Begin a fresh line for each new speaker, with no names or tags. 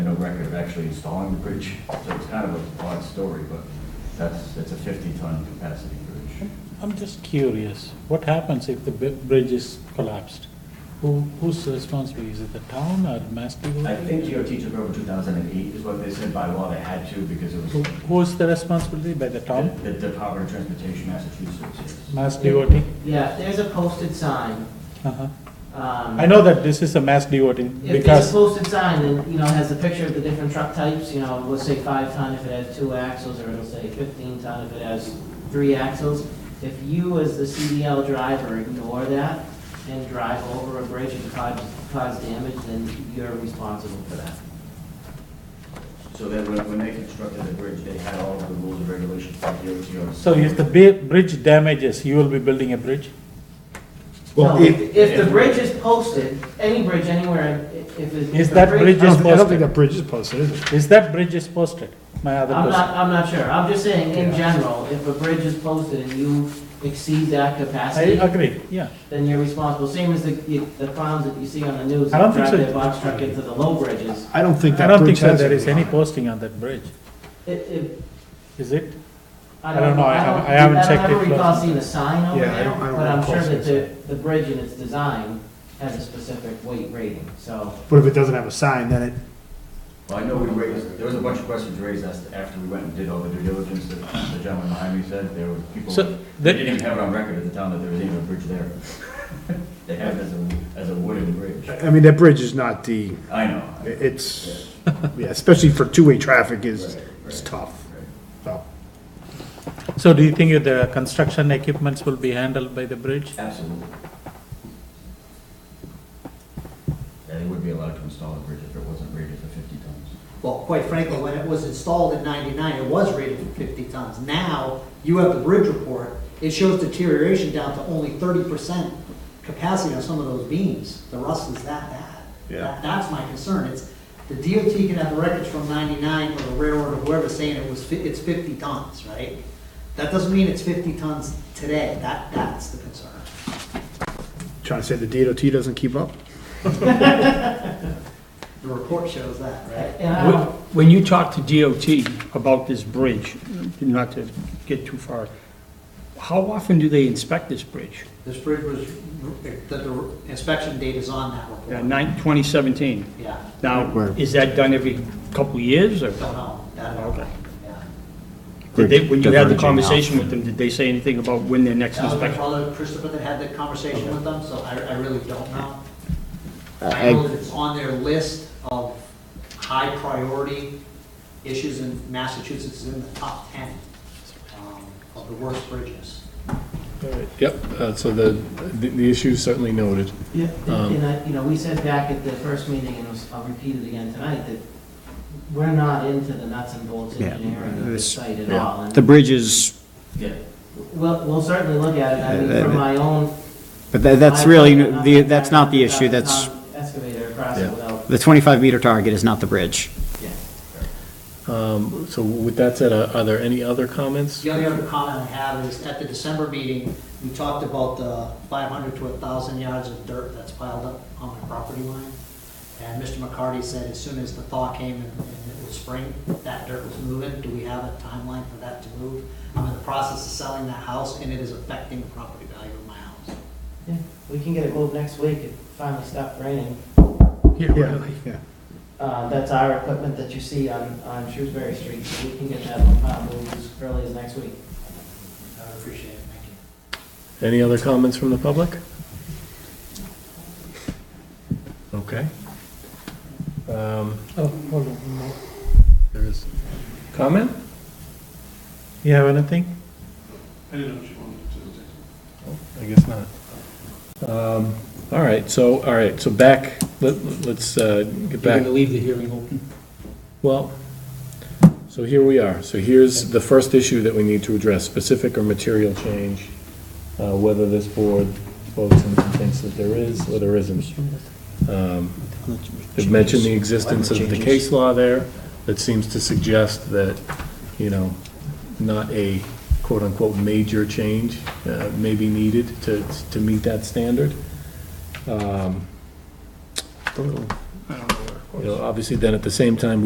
record of actually installing the bridge. So it's kind of an odd story, but that's, it's a 50-ton capacity bridge.
I'm just curious, what happens if the bi- bridge is collapsed? Who, whose responsibility, is it the town or Mass DOT?
I think DOT took over 2008 is what they said by law they had to because it was
Who- Who's the responsibility, by the town,
the the Department of Transportation, Massachusetts. yes.
Mass DOT?
Yeah, there's a posted sign.
Uh-huh.
um,
I know that this is a Mass DOT,
If there's a
because,
posted sign, then, you know, it has a picture of the different truck types, you know, it'll say five ton if it has two axles, or it'll say fifteen ton if it has three axles. If you, as the CDL driver, ignore that and drive over a bridge and cause, cause damage, then you're responsible for that.
So that when when they constructed the bridge, they had all of the rules and regulations for DOT. on-
so if the bi- bridge damages, you will be building a bridge?
No,
Well, if,
if, if the bridge is posted, any bridge anywhere, i- if it.
Is
if a
that
I
bridge-
don't think- I don't think that bridge is posted, is it?
Is that bridge is posted? My other
I'm not,
question.
I'm not sure. I'm just saying, in
Yeah.
general, if a bridge is posted and you exceed that
I
capacity,
agree, yeah.
then you're responsible. Same as the, you- the clowns that you see on the news.
I don't think
that Drive
so.
their box truck into the low bridges.
I don't think
I
that
don't think
bridge
so
has.
there is
anything
any
on it.
posting on that bridge,
It, it,
is it?
I
I don't
don't
know.
know.
I
don't-
haven't- I haven't checked
I
it
don't recall
closely.
seeing a sign over
Yeah, I
there,
don't- I don't
but I'm sure
recall
that
seeing a
the, the bridge and its design has a specific weight rating, so.
But if it doesn't have a sign, then it,
Well, I know we raised, there was a bunch of questions raised as to- after we went and did all the due diligence that the gentleman behind me said. There were people,
So,
they
the-
didn't even have it on record at the time that there was even a bridge there. They have it as a, as a wooden bridge.
I mean, that bridge is not the,
I know. I-
it's, yeah, especially for two-way traffic is,
Right,
it's
right.
tough. So,
So do you think if the construction equipments will be handled by the bridge?
Absolutely. Yeah, they would be allowed to install a bridge if it wasn't rated for 50 tons.
Well, quite frankly, when it was installed in 99, it was rated for 50 tons. Now, you have the bridge report, it shows deterioration down to only 30% capacity on some of those beams. The rust is that bad.
Yeah.
That- That's my concern. It's, the DOT can have the records from 99 or the railroad or whoever saying it was, fi- it's 50 tons, right? That doesn't mean it's 50 tons today. That, that's the concern.
trying to say the DOT doesn't keep up?
The report shows that, right?
And I
When
don't,
when you talk to DOT about this bridge, not to get too far, how often do they inspect this bridge?
This bridge was, the- the inspection date is on that report.
Uh, nine- 2017.
Yeah.
Now,
Right.
is that done every couple of years, or
Don't know, that I don't know,
Okay.
yeah.
did they, when you had the
Diverging out.
conversation with them, did they say anything about when their next
That was my
inspection?
father, Christopher, that had the conversation with them, so I, I really don't know. I know
I,
that it's on their list of high priority issues in Massachusetts, is in the top ten, um, of the worst bridges.
yep, uh, so the, the- the issue is certainly noted.
Yeah,
Um,
and I, you know, we said back at the first meeting, and it was- I'll repeat it again tonight, that we're not into the nuts and bolts
Yeah,
engineering of the
this-
site at all. and
The bridge is,
Yeah.
We'll, we'll certainly look at it, I mean,
Uh,
from my own.
but tha- that's
I've
really,
done it,
the
I've
that's
done it,
not the
I've
issue,
done it
that's,
on Excavator across it
Yeah.
without,
the 25-meter target is not the bridge.
yeah.
Um, So with that said, are are there any other comments?
The only other comment I have is, at the December meeting, we talked about the five hundred to thousand yards of dirt that's piled up on my property line. And Mr. McCarty said as soon as the thaw came and and it was spring, that dirt was moving. Do we have a timeline for that to move? I'm in the process of selling that house, and it is affecting the property value of my house.
Yeah, we can get it moved next week, it finally stopped raining.
Yeah, yeah.
Uh, that's our equipment that you see on, on Shrewsbury Street, so we can get that uh, moved as early as next week.
I would appreciate it, thank you.
Any other comments from the public? Okay. Um,
Oh, hold on. one more.
There is comment?
You have anything?
Oh, I guess not. Um, All right, so, all right, so back, let- let's uh, get
You're
back.
gonna leave the hearing open?
Well, so here we are. So here's the first issue that we need to address, specific or material change, uh, whether this board votes and thinks that there is or there isn't. Um, They've mentioned the existence of the case law there that seems to suggest that, you know, not a quote-unquote major change uh, may be needed to, to meet that standard. Um, You know, obviously then at the same time,